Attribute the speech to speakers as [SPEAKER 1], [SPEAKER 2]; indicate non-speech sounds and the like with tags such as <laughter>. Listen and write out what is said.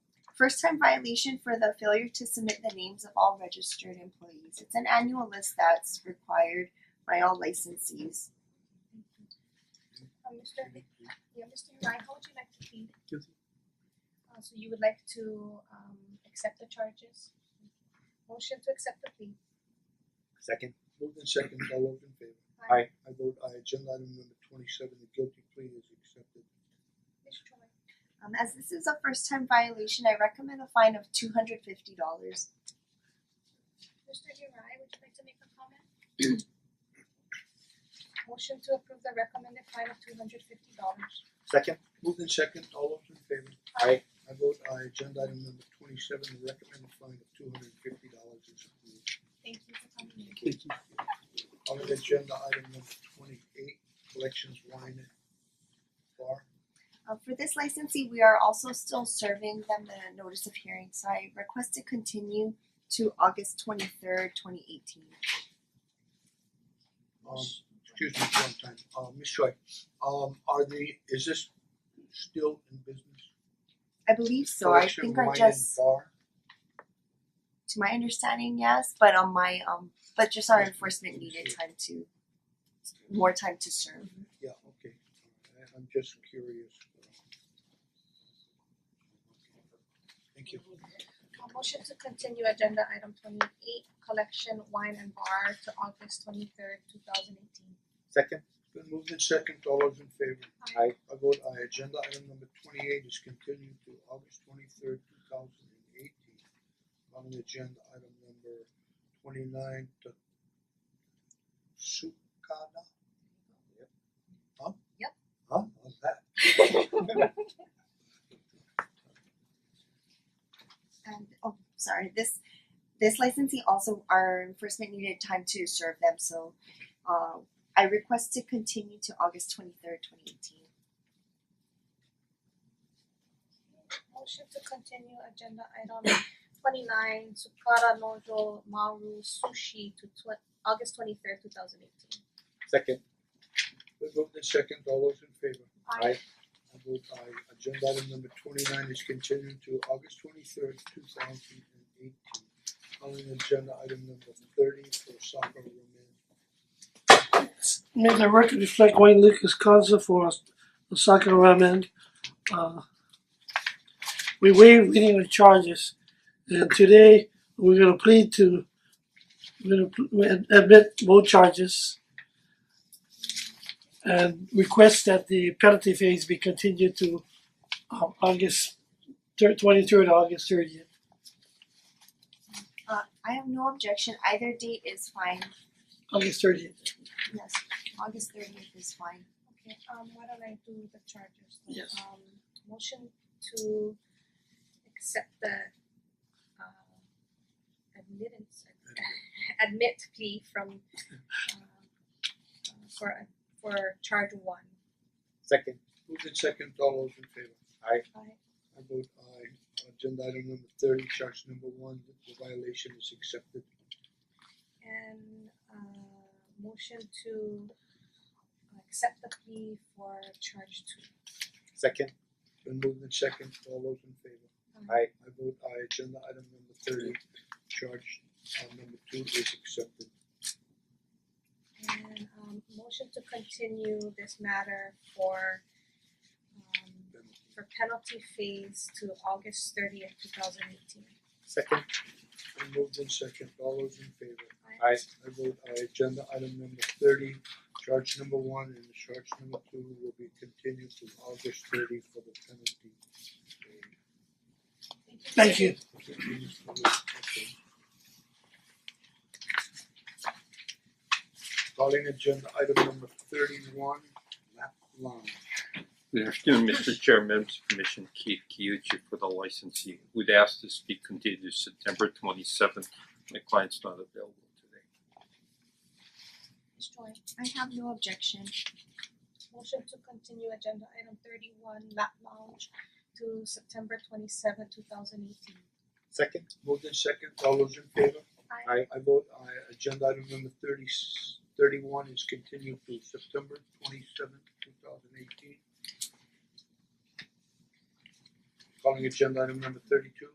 [SPEAKER 1] First time violation for the failure to submit the names of all registered employees. It's an annual list that's required by all licensees.
[SPEAKER 2] Uh, Mr. Yeah, Mr. Rai, how would you like to plead? Uh, so you would like to um accept the charges? Motion to accept the plea.
[SPEAKER 3] Second.
[SPEAKER 4] Moved in second, all those in favor?
[SPEAKER 3] Aye.
[SPEAKER 4] I vote aye, agenda item number twenty seven, the guilty plea is accepted.
[SPEAKER 2] Mr. Choi,
[SPEAKER 1] Um as this is a first time violation, I recommend a fine of two hundred fifty dollars.
[SPEAKER 2] Mr. Rai, would you like to make a comment? Motion to approve the recommended fine of two hundred fifty dollars.
[SPEAKER 3] Second.
[SPEAKER 4] Moved in second, all those in favor?
[SPEAKER 3] Aye.
[SPEAKER 4] I vote aye, agenda item number twenty seven, the recommended fine of two hundred and fifty dollars is approved.
[SPEAKER 2] Thank you for coming in.
[SPEAKER 4] On to agenda item number twenty eight, collections wine and bar.
[SPEAKER 1] Uh, for this licensee, we are also still serving them the notice of hearing, so I request to continue to August twenty third, twenty eighteen.
[SPEAKER 4] Um excuse me for one time, uh Ms. Choi, um are the, is this still in business?
[SPEAKER 1] I believe so, I think I just,
[SPEAKER 4] Collection wine and bar?
[SPEAKER 1] to my understanding, yes, but on my, um, but just our enforcement needed time to, more time to serve.
[SPEAKER 4] Yeah, okay, Alright, I'm just curious. Thank you.
[SPEAKER 2] Uh, motion to continue agenda item twenty eight, collection wine and bar to August twenty third, two thousand eighteen.
[SPEAKER 3] Second.
[SPEAKER 4] Been moved in second, all those in favor?
[SPEAKER 3] Aye.
[SPEAKER 4] I vote aye, agenda item number twenty eight is continued to August twenty third, two thousand and eighteen. On the agenda item number twenty nine to Sukada?
[SPEAKER 3] Yep.
[SPEAKER 4] Huh?
[SPEAKER 2] Yep.
[SPEAKER 4] Huh, how's that?
[SPEAKER 1] And, oh, sorry, this, this licensee also, our enforcement needed time to serve them, so, uh, I request to continue to August twenty third, twenty eighteen.
[SPEAKER 2] Motion to continue agenda item twenty nine, Sukara Nojo Maru Sushi to tw- August twenty third, two thousand eighteen.
[SPEAKER 3] Second.
[SPEAKER 4] Been moved in second, all those in favor?
[SPEAKER 3] Aye.
[SPEAKER 4] I vote aye, agenda item number twenty nine is continued to August twenty third, two thousand and eighteen. Calling agenda item number thirty for Soccer Roman.
[SPEAKER 5] May the record reflect Wayne Lucas Causa for Osaka Ramen. Uh, we waive reading the charges, and today we're gonna plead to, we're gonna pl- admit both charges. And request that the penalty phase be continued to uh, August third, twenty-third, August thirtieth.
[SPEAKER 1] Uh, I have no objection, either date is fine,
[SPEAKER 5] August thirtieth,
[SPEAKER 1] yes, August thirtieth is fine.
[SPEAKER 2] Okay, um why don't I do the charges? then?
[SPEAKER 5] Yes.
[SPEAKER 2] Um motion to accept the uh admittance <laughs> admit plea from uh uh, for a for charge one.
[SPEAKER 3] Second.
[SPEAKER 4] Moved in second, all those in favor?
[SPEAKER 2] Aye.
[SPEAKER 4] I vote aye, agenda item number thirty, charge number one, the violation is accepted.
[SPEAKER 2] And uh motion to accept the plea for charge two.
[SPEAKER 3] Second.
[SPEAKER 4] Been moved in second, all those in favor?
[SPEAKER 3] Aye.
[SPEAKER 4] I vote aye, agenda item number thirty, charge uh number two is accepted.
[SPEAKER 2] And um motion to continue this matter for um for penalty phase to August thirtieth, two thousand eighteen.
[SPEAKER 3] Second.
[SPEAKER 4] Been moved in second, all those in favor?
[SPEAKER 3] Aye.
[SPEAKER 4] I vote aye, agenda item number thirty, charge number one and charge number two will be continued to August thirty for the penalty.
[SPEAKER 5] thank you.
[SPEAKER 4] Calling agenda item number thirty one, Lap Lounge.
[SPEAKER 6] Good afternoon, Mr. Chair, members of the Commission, Keith Kiyuchi for the licensee. Would ask this be continued to September twenty seventh. My client's not available today.
[SPEAKER 2] Ms. Choi,
[SPEAKER 1] I have no objection.
[SPEAKER 2] motion to continue agenda item thirty one, lap lounge to September twenty seventh, two thousand eighteen.
[SPEAKER 3] Second.
[SPEAKER 4] Moved in second, all those in favor?
[SPEAKER 2] Aye.
[SPEAKER 3] Aye.
[SPEAKER 4] I vote aye, agenda item number thirty thirty one is continued to September twenty seventh, two thousand eighteen. Calling agenda item number thirty two,